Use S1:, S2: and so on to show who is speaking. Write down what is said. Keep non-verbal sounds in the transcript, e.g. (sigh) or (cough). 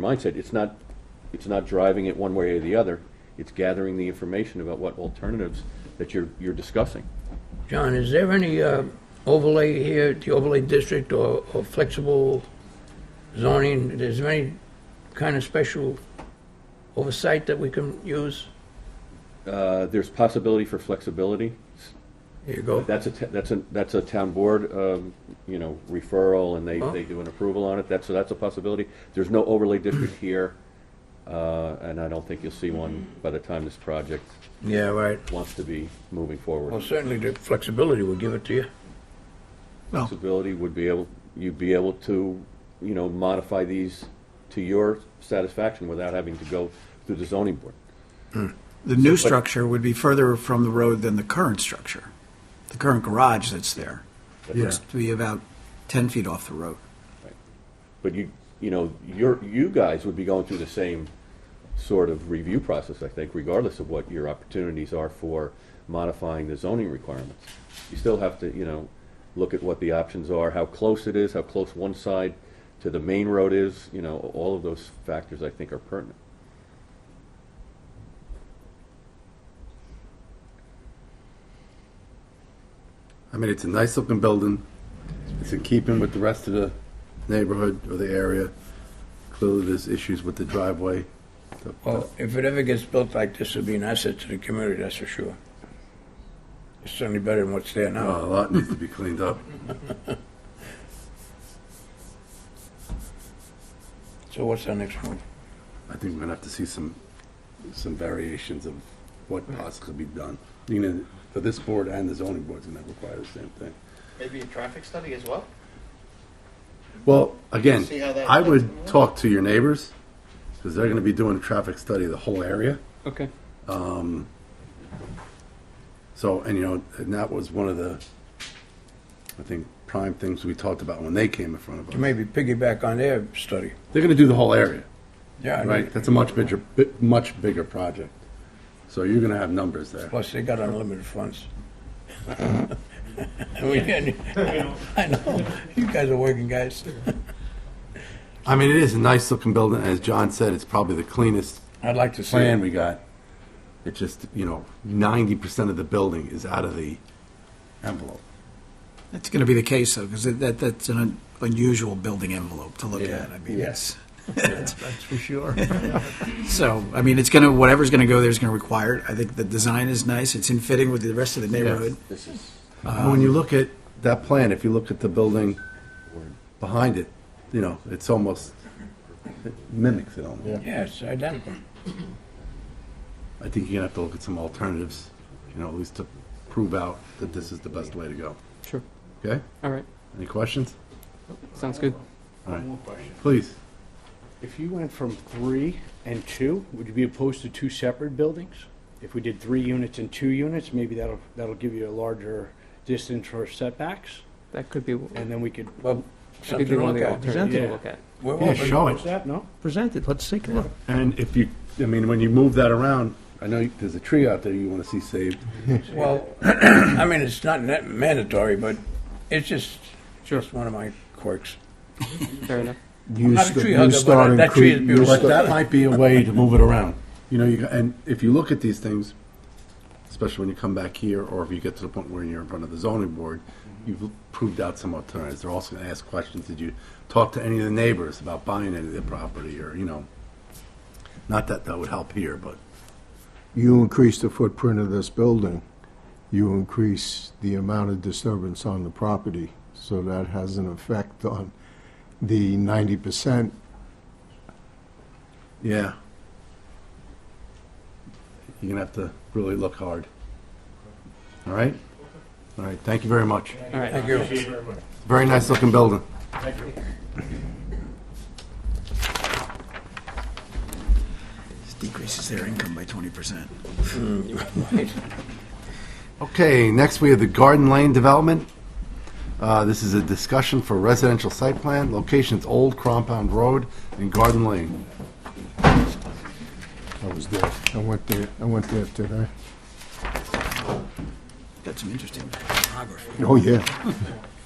S1: mindset, it's not, it's not driving it one way or the other. It's gathering the information about what alternatives that you're, you're discussing.
S2: John, is there any uh, overlay here, the overlay district or or flexible zoning? Is there any kind of special oversight that we can use?
S1: Uh, There's possibility for flexibility.
S2: Here you go.
S1: That's a, t- that's a, that's a town board, um, you know, referral, and they, they do an approval on it. That's, so that's a possibility. There's no overlay district here, uh, and I don't think you'll see one by the time this project
S2: Yeah, right.
S1: wants to be moving forward.
S2: Well, certainly the flexibility will give it to you.
S1: flexibility would be able, you'd be able to, you know, modify these to your satisfaction without having to go through the zoning board.
S3: The new structure would be further from the road than the current structure, the current garage that's there. It looks to be about 10 feet off the road.
S1: But you, you know, your, you guys would be going through the same sort of review process, I think, regardless of what your opportunities are for modifying the zoning requirements. You still have to, you know, look at what the options are, how close it is, how close one side to the main road is, you know, all of those factors I think are pertinent.
S4: I mean, it's a nice looking building. It's in keeping with the rest of the neighborhood or the area. Clearly, there's issues with the driveway.
S2: Well, if it ever gets built like this, it'll be an asset to the community, that's for sure. It's certainly better than what's there
S4: Uh,
S2: now.
S4: a lot needs to be cleaned up.
S2: So what's our next move?
S4: I think we're gonna have to see some, some variations of what possibly be done. You know, for this board and the zoning board's gonna require the same thing.
S5: Maybe a traffic study as well?
S4: Well, again,
S5: See how that
S4: I
S5: affects
S4: would
S5: them.
S4: talk to your neighbors, because they're gonna be doing a traffic study of the whole area. Um,
S1: Okay.
S4: So, and you know, and that was one of the, I think, prime things we talked about when they came in front of us.
S2: Maybe piggyback on their study.
S4: They're gonna do the whole area.
S2: Yeah, I
S4: Right,
S2: mean,
S4: that's a much bigger, bi- much bigger project. So you're gonna have numbers there.
S2: plus they got unlimited funds. (laughs) We can- I know, you guys are working guys.
S4: I mean, it is a nice looking building, as John said, it's probably the cleanest
S2: I'd like to see. it.
S4: plan we got. It's just, you know, ninety percent of the building is out of the envelope.
S3: That's going to be the case, though, because that, that's an un- unusual building envelope to look
S4: Yeah,
S3: at. I mean,
S4: yeah.
S3: it's. That's for sure. So, I mean, it's going to, whatever's going to go there is going to require it. I think the design is nice. It's in fitting with the rest of the neighborhood.
S1: This is.
S4: (laughs) And when you look at that plan, if you look at the building behind it, you know, it's almost, it mimics it almost.
S2: Yes, identical.
S4: I think you're gonna have to look at some alternatives, you know, at least to prove out that this is the best way to go.
S6: Sure.
S4: Okay?
S6: All right.
S4: Any questions?
S6: Sounds good.
S4: All right. Please.
S7: If you went from three and two, would you be opposed to two separate buildings? If we did three units and two units, maybe that'll, that'll give you a larger distance for setbacks,
S6: That could be,
S7: and then we could,
S2: Well,
S6: that could
S2: something
S6: be
S2: to
S6: one of
S2: look
S6: the
S2: at.
S6: alternatives to
S7: Yeah.
S6: look at.
S2: We're
S4: Yeah,
S2: open.
S4: show it.
S7: that, no?
S8: present it, let's take a look.
S4: And if you, I mean, when you move that around, I know you- there's a tree out there you want to see saved.
S2: (coughs) Well, I mean, it's not net- mandatory, but it's just, just one of my quirks.
S6: Fair enough.
S2: I'm not a tree hugger, but that tree is
S4: But
S2: beautiful.
S4: that might be a way to move it around. You know, you, got- and if you look at these things, especially when you come back here, or if you get to the point where you're in front of the zoning board, you've proved out some alternatives. They're also going to ask questions. Did you talk to any of the neighbors about buying any of their property, or, you know? Not that that would help here, but.
S9: you increase the footprint of this building, you increase the amount of disturbance on the property. So that has an effect on the ninety percent.
S4: Yeah. You're gonna have to really look hard. All right? All right, thank you very much.
S6: All right.
S2: Thank you.
S4: Very nice looking building.
S3: Decreases their income by 20%.
S4: Okay, next we have the Garden Lane Development. Uh, this is a discussion for residential site plan, locations Old Compound Road and Garden Lane.
S9: I was there. I went there, I went there today.
S3: Got some interesting photography.
S9: Oh, yeah.